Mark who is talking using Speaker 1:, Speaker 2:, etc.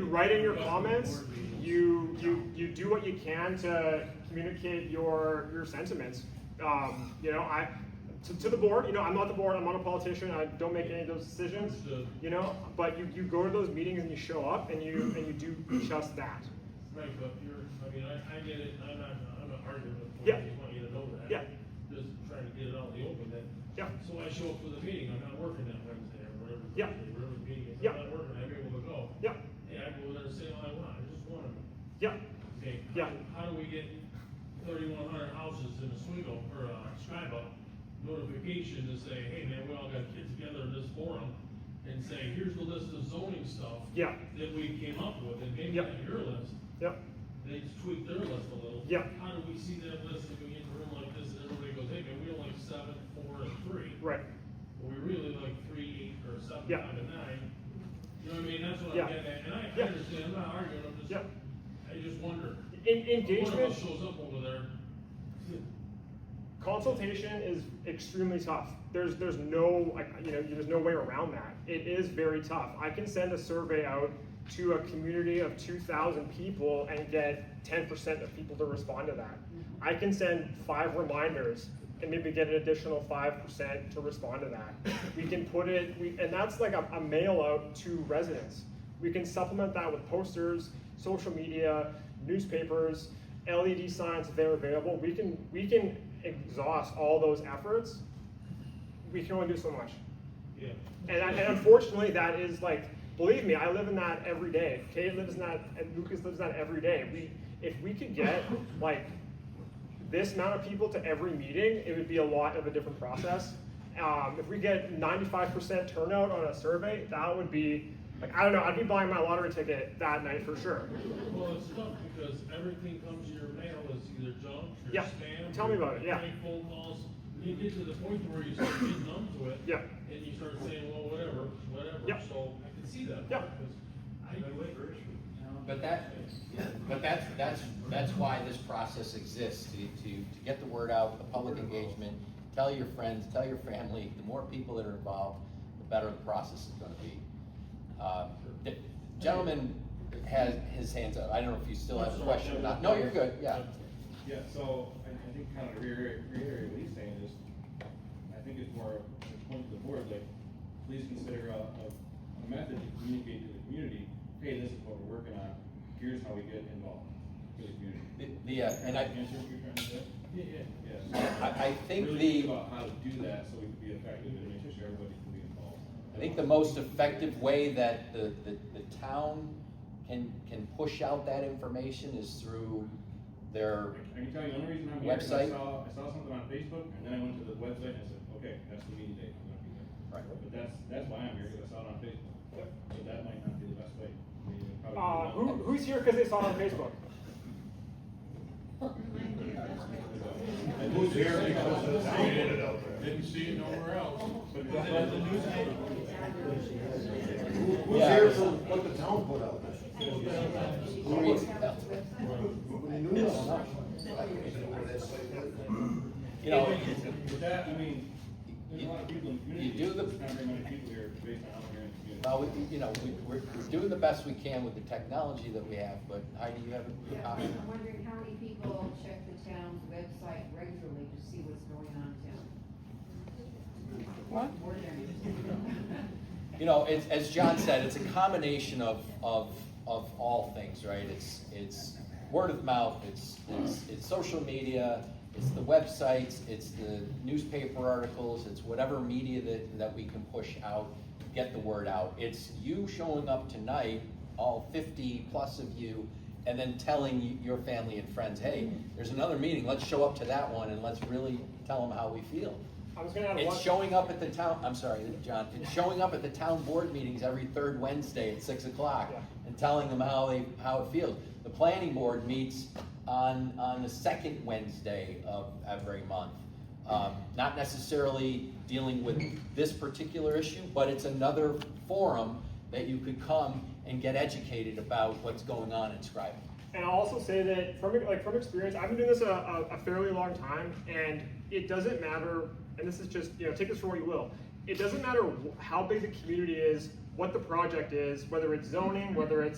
Speaker 1: write in your comments, you you you do what you can to communicate your your sentiments. Um, you know, I to, to the board. You know, I'm not the board. I'm not a politician. I don't make any of those decisions. You know, but you, you go to those meetings and you show up and you and you do just that.
Speaker 2: Right, but you're, I mean, I, I get it, I'm not, I'm not arguing with you,
Speaker 1: Yeah.
Speaker 2: I just want you to know that.
Speaker 1: Yeah.
Speaker 2: Just trying to get it out in the open then.
Speaker 1: Yeah.
Speaker 2: So I show up for the meeting, I'm not working that Wednesday or whatever.
Speaker 1: Yeah.
Speaker 2: Thursday, Whatever the meeting is,
Speaker 1: Yeah.
Speaker 2: I'm not working, I'm able to go.
Speaker 1: Yeah,
Speaker 2: Hey, I go there and say all I want, I just want to,
Speaker 1: yeah,
Speaker 2: okay. how-
Speaker 1: Yeah.
Speaker 2: How do we get thirty-one hundred houses in Oswego or, uh, Scriba notification to say, hey, man, we all got kids together in this forum and say, here's the list of zoning stuff.
Speaker 1: Yeah.
Speaker 2: That we came up with and maybe
Speaker 1: Yeah.
Speaker 2: not your list.
Speaker 1: yeah,
Speaker 2: They just tweak their list a little.
Speaker 1: Yeah.
Speaker 2: How do we see that list if we get in a room like this and everybody goes, hey, man, we don't like seven, four, and three.
Speaker 1: right.
Speaker 2: But we really like three, eight, or seven,
Speaker 1: Yeah.
Speaker 2: five, and nine. You know what I mean? That's what I'm
Speaker 1: Yeah.
Speaker 2: getting at. And I, I
Speaker 1: Yeah.
Speaker 2: understand, I'm not arguing, I'm just,
Speaker 1: Yeah.
Speaker 2: I just wonder.
Speaker 1: In,
Speaker 2: One of
Speaker 1: engagement
Speaker 2: us shows up over there.
Speaker 1: consultation is extremely tough. There's there's no like, you know there's no way around that. It is very tough. I can send a survey out to a community of 2,000 people and get 10% of people to respond to that. I can send five reminders and maybe get an additional 5% to respond to that. We can put it, we, and that's like a, a mail out to residents. We can supplement that with posters, social media, newspapers, LED E signs if they're available. We can we can exhaust all those efforts. We can only do so much,
Speaker 2: Yeah.
Speaker 1: and, I, and unfortunately, that is like believe me, I live in that every day. Kate lives in that, and Lucas lives in that every day. We if we could get like this amount of people to every meeting, it would be a lot of a different process. Um, if we get 95% turnout on a survey, that would be like I don't know. I'd be buying my lottery ticket that night for sure.
Speaker 2: Well, it's tough because everything comes to your mail is either junk or
Speaker 1: Yeah.
Speaker 2: spam.
Speaker 1: Tell me
Speaker 2: or
Speaker 1: about it, yeah.
Speaker 2: prank phone calls. You get to the point where you start getting numb to it.
Speaker 1: Yeah.
Speaker 2: And you start saying, well, whatever, whatever.
Speaker 1: Yeah.
Speaker 2: So I can see that.
Speaker 1: Yeah.
Speaker 2: Because I do it.
Speaker 3: But that, but that's, that's, that's why this process exists, to, to, to get the word out, the public engagement, tell your friends, tell your family, the more people that are involved, the better the process is gonna be. Uh, the Gentleman has his hands up, I don't know if you still have a question or not, no, you're good, yeah.
Speaker 4: Yeah, so I, I think kind of reiterate, reiterate what he's saying is, I think it's more of a point to the board, like, please consider a, a, a method to communicate to the community, hey, this is what we're working on, here's how we get involved for the community.
Speaker 3: The- The, uh, and I,
Speaker 4: Answer what you're trying to say? Yeah, yeah,
Speaker 3: I,
Speaker 4: yeah.
Speaker 3: I think
Speaker 4: Really
Speaker 3: the.
Speaker 4: think about how to do that so we can be effective and make sure everybody can be involved.
Speaker 3: I think the most effective way that the, the, the town can, can push out that information is through their,
Speaker 4: I can tell you, the only reason I'm here is I
Speaker 3: Website.
Speaker 4: saw, I saw something on Facebook, and then I went to the website and I said, okay, that's the meeting date, I'm gonna be there.
Speaker 3: Right.
Speaker 4: But that's, that's why I'm here, because I saw it on Facebook, so that might not be the best way. I mean, it probably-
Speaker 1: Uh, who, who's here because they saw it on Facebook?
Speaker 4: And who's here because of the town?
Speaker 2: Didn't see it nowhere else.
Speaker 4: But that's why the newspaper.
Speaker 5: Who's
Speaker 3: Yeah.
Speaker 5: here for what the town put out?
Speaker 3: who reads- you know,
Speaker 4: With that, I mean, there's a lot of people in the community.
Speaker 3: You do the-
Speaker 4: There's Not very many people here based on how we're in the community.
Speaker 3: well, we- you know, we, we're, we're doing the best we can with the technology that we have, but Heidi, you have a
Speaker 6: Yeah,
Speaker 3: comment?
Speaker 6: I'm wondering how many people check the town's website regularly to see what's going on in town?
Speaker 3: What?
Speaker 6: More than-
Speaker 3: You know, it's, as John said, it's a combination of, of, of all things, right? It's, it's word of mouth, it's, it's, it's social media, it's the websites, it's the newspaper articles, it's whatever media that, that we can push out, get the word out. It's you showing up tonight, all fifty plus of you, and then telling y- your family and friends, hey, there's another meeting, let's show up to that one and let's really tell them how we feel.
Speaker 1: I was gonna add one.
Speaker 3: It's showing up at the town, I'm sorry, John, it's showing up at the town board meetings every third Wednesday at six o'clock
Speaker 1: Yeah.
Speaker 3: and telling them how they, how it feels. The planning board meets on, on the second Wednesday of every month. Um, not necessarily dealing with this particular issue, but it's another forum that you could come and get educated about what's going on in Scribe.
Speaker 1: And I'll also say that from like from experience, I've been doing this a, a, a fairly long time, and it doesn't matter. And this is just you know take this for what you will. It doesn't matter wh- how big the community is, what the project is, whether it's zoning, whether it's